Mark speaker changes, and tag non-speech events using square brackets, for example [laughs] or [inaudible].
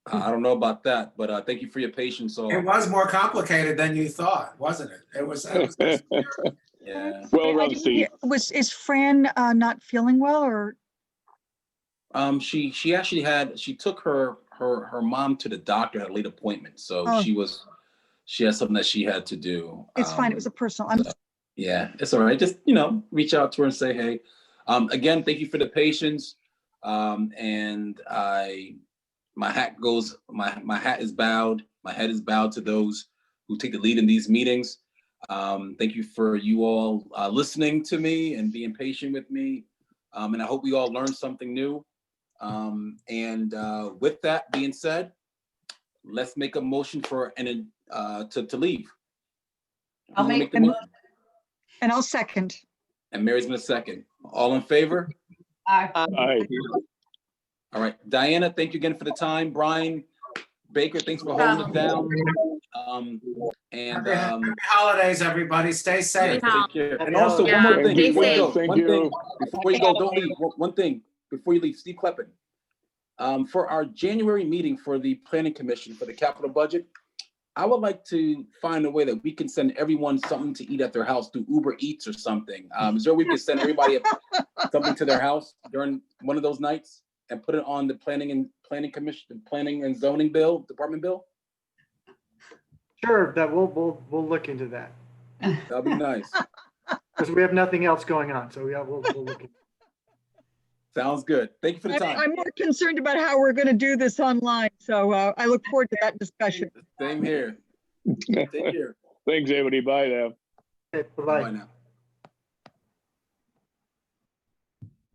Speaker 1: I I don't know about that, but uh, thank you for your patience. So,
Speaker 2: It was more complicated than you thought, wasn't it? It [laughs] was, it was-
Speaker 1: yeah.
Speaker 3: Well,
Speaker 4: I- I didn't
Speaker 3: Rosie.
Speaker 4: hear- Was, is Fran uh, not feeling well or,
Speaker 1: Um, she she actually had she took her her her mom to the doctor at a late appointment, so
Speaker 4: Oh.
Speaker 1: she was she had something that she had to do.
Speaker 4: it's fine,
Speaker 1: Um,
Speaker 4: it was a personal, I'm,
Speaker 1: Yeah, it's all right. Just, you know, reach out to her and say, hey. Um, again, thank you for the patience. Um, and I, my hat goes, my, my hat is bowed. My head is bowed to those who take the lead in these meetings. Um, thank you for you all uh, listening to me and being patient with me. Um, and I hope we all learned something new. Um, and uh, with that being said, let's make a motion for and uh, to to leave.
Speaker 5: I'll
Speaker 1: You wanna
Speaker 5: make
Speaker 1: the
Speaker 5: the
Speaker 1: mo-
Speaker 4: and I'll second.
Speaker 1: and Mary's been a second. All in favor?
Speaker 5: Aye.
Speaker 3: Aye.
Speaker 1: All right. Diana, thank you again for the time. Brian Baker, thanks for holding it down. Um, and,
Speaker 2: Happy
Speaker 1: um,
Speaker 2: holidays, everybody. Stay
Speaker 1: yeah,
Speaker 2: safe.
Speaker 1: take care. And also, one more
Speaker 3: Yeah,
Speaker 1: thing,
Speaker 3: stay
Speaker 1: before you go,
Speaker 3: safe.
Speaker 1: one thing,
Speaker 3: Thank
Speaker 1: before you go, don't leave, one- one thing, before you leave, Steve Kleppen. Um, for our January meeting for the planning commission for the capital budget, I would like to find a way that we can send everyone something to eat at their house through Uber Eats or something. Um, is there a way we can send everybody a- something to their house during one of those nights? And put it on the planning and planning commission, the planning and zoning bill, department bill?
Speaker 6: Sure, that we'll, we'll, we'll look into that
Speaker 1: That'd be nice.
Speaker 6: because we have nothing else going on. So yeah, we'll, we'll look. into
Speaker 1: Sounds good. Thank you for the
Speaker 4: I'm
Speaker 1: time.
Speaker 4: I'm more concerned about how we're going to do this online, so uh, I look forward to that discussion.
Speaker 1: Same here. Take care.
Speaker 3: Thanks, everybody. Bye now.
Speaker 6: it. Bye-bye.
Speaker 1: Bye now.